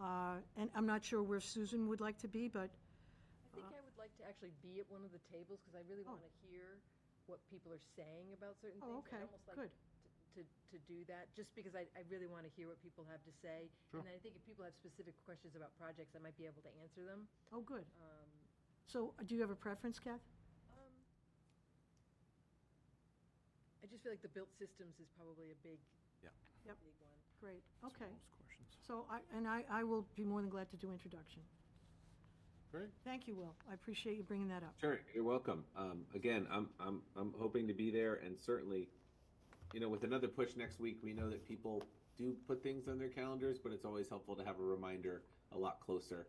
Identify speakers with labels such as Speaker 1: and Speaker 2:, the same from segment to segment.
Speaker 1: Uh, and I'm not sure where Susan would like to be, but,
Speaker 2: I think I would like to actually be at one of the tables, because I really
Speaker 1: Oh.
Speaker 2: want to hear what people are saying about certain
Speaker 1: Oh,
Speaker 2: things.
Speaker 1: okay,
Speaker 2: I'd almost like
Speaker 1: good.
Speaker 2: t- To, to do that, just because I, I really want to hear what people have to say. And then I think if people have specific questions about projects, I might be able to answer them.
Speaker 1: oh, good.
Speaker 2: Um,
Speaker 1: So uh, do you have a preference, Kath?
Speaker 2: um, I just feel like the built systems is probably a big,
Speaker 3: Yeah.
Speaker 1: Yep.
Speaker 2: big one.
Speaker 1: Great, okay.
Speaker 3: Those questions.
Speaker 1: So I, and I, I will be more than glad to do introduction.
Speaker 3: Great.
Speaker 1: Thank you, Will. I appreciate you bringing that up.
Speaker 4: Sure, you're welcome. Um, again, I'm, I'm, I'm hoping to be there and certainly, you know, with another push next week, we know that people do put things on their calendars, but it's always helpful to have a reminder a lot closer.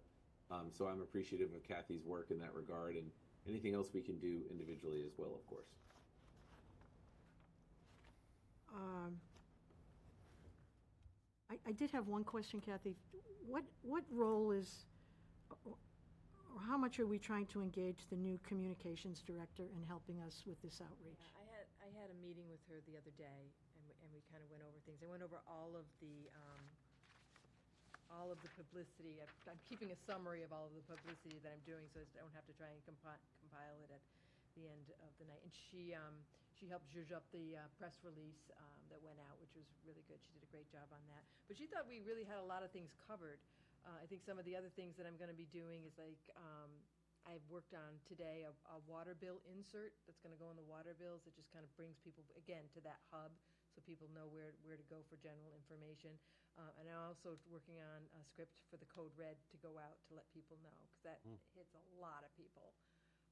Speaker 4: Um, so I'm appreciative of Kathy's work in that regard and anything else we can do individually as well, of course.
Speaker 1: Um, I, I did have one question, Kathy. What, what role is, or how much are we trying to engage the new communications director in helping us with this outreach?
Speaker 2: Yeah, I had, I had a meeting with her the other day, and, we- and we kind of went over things. I went over all of the, um, all of the publicity. I've- I'm keeping a summary of all of the publicity that I'm doing, so I don't have to try and compi- compile it at the end of the night. And she, um, she helped zhuzh up the uh, press release um, that went out, which was really good. She did a great job on that. But she thought we really had a lot of things covered. Uh, I think some of the other things that I'm going to be doing is like, um, I've worked on today a, a water bill insert that's gonna go in the water bills. It just kind of brings people, again, to that hub, so people know where, where to go for general information. Uh, and I'm also working on a script for the Code Red to go out to let people know, because that hits a lot of people.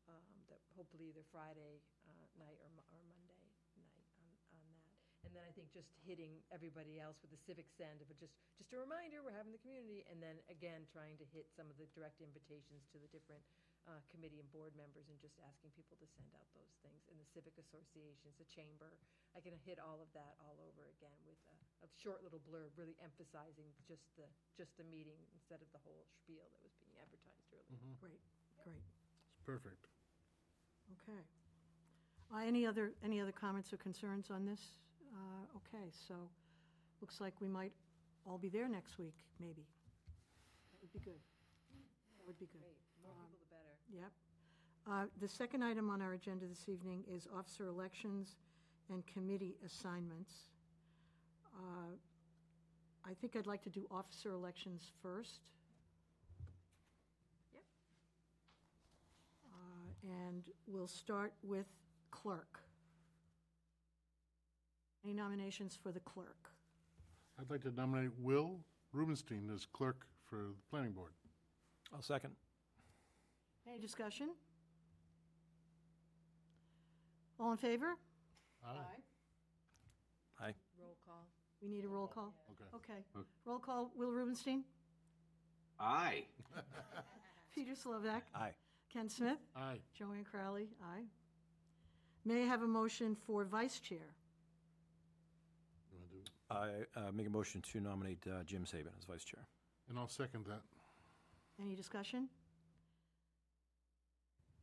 Speaker 2: Um, that hopefully either Friday, uh, night or, Mo- or Monday night on, on that. And then I think just hitting everybody else with the civic send, but just, just a reminder, we're having the community. And then again, trying to hit some of the direct invitations to the different uh, committee and board members and just asking people to send out those things. And the civic associations, the chamber, I can hit all of that all over again with a, a short little blurb, really emphasizing just the, just the meeting instead of the whole spiel that was being advertised earlier.
Speaker 1: Great, great,
Speaker 3: It's perfect.
Speaker 1: okay. Uh, Any other, any other comments or concerns on this? Uh, Okay, so, looks like we might all be there next week, maybe. That would be good. That would be good.
Speaker 2: Great, more people the better.
Speaker 1: Yep. Uh, The second item on our agenda this evening is officer elections and committee assignments. Uh, I think I'd like to do officer elections first,
Speaker 2: Yep.
Speaker 1: uh, and we'll start with clerk. Any nominations for the clerk?
Speaker 5: I'd like to nominate Will Rubenstein as clerk for the planning board.
Speaker 3: I'll second.
Speaker 1: Any discussion? All in favor? Aye.
Speaker 3: Aye.
Speaker 2: Roll call.
Speaker 1: We need a roll call?
Speaker 5: Okay.
Speaker 1: Okay. Roll call, Will Rubenstein,
Speaker 4: Aye.
Speaker 1: Peter Slovak,
Speaker 3: Aye.
Speaker 1: Ken Smith,
Speaker 5: Aye.
Speaker 1: Joanne Crowley, aye. May I have a motion for vice chair?
Speaker 5: You wanna do it?
Speaker 3: I uh, make a motion to nominate uh, Jim Saban as vice chair.
Speaker 5: And I'll second that.
Speaker 1: Any discussion?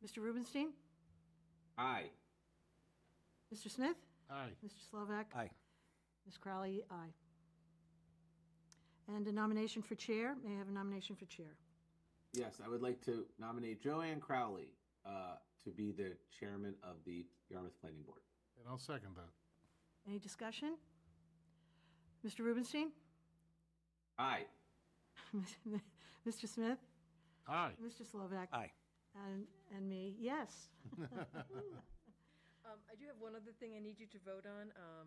Speaker 1: Mr. Rubenstein?
Speaker 4: Aye.
Speaker 1: Mr. Smith?
Speaker 5: Aye.
Speaker 1: Mr. Slovak?
Speaker 3: Aye.
Speaker 1: Ms. Crowley, aye. And a nomination for chair? May I have a nomination for chair?
Speaker 4: Yes, I would like to nominate Joanne Crowley, uh, to be the chairman of the Yarmouth Planning Board.
Speaker 5: And I'll second that.
Speaker 1: Any discussion? Mr. Rubenstein?
Speaker 4: Aye.
Speaker 1: Mr. Smith?
Speaker 5: Aye.
Speaker 1: Mr. Slovak?
Speaker 3: Aye.
Speaker 1: And, and me, yes.
Speaker 2: Um, I do have one other thing I need you to vote on, um,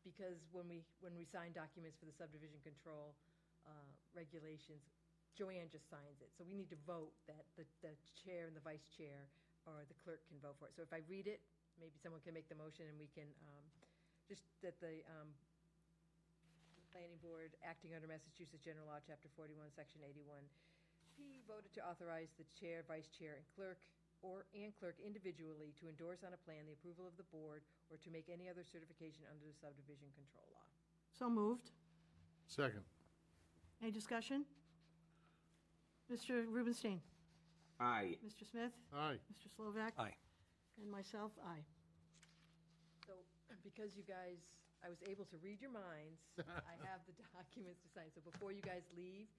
Speaker 2: because when we, when we sign documents for the subdivision control, uh, regulations, Joanne just signs it, so we need to vote that the, the chair and the vice chair or the clerk can vote for it. So if I read it, maybe someone can make the motion and we can, um, just that the, um, Planning Board, acting under Massachusetts General Law, Chapter 41, Section 81. P voted to authorize the chair, vice chair, and clerk, or, and clerk individually to endorse on a plan the approval of the board or to make any other certification under the subdivision control law.
Speaker 1: So moved.
Speaker 5: Second.
Speaker 1: Any discussion? Mr. Rubenstein?
Speaker 4: Aye.
Speaker 1: Mr. Smith?
Speaker 5: Aye.
Speaker 1: Mr. Slovak?
Speaker 3: Aye.
Speaker 1: And myself, aye.
Speaker 2: So because you guys, I was able to read your minds, I have the documents to sign. So before you guys leave,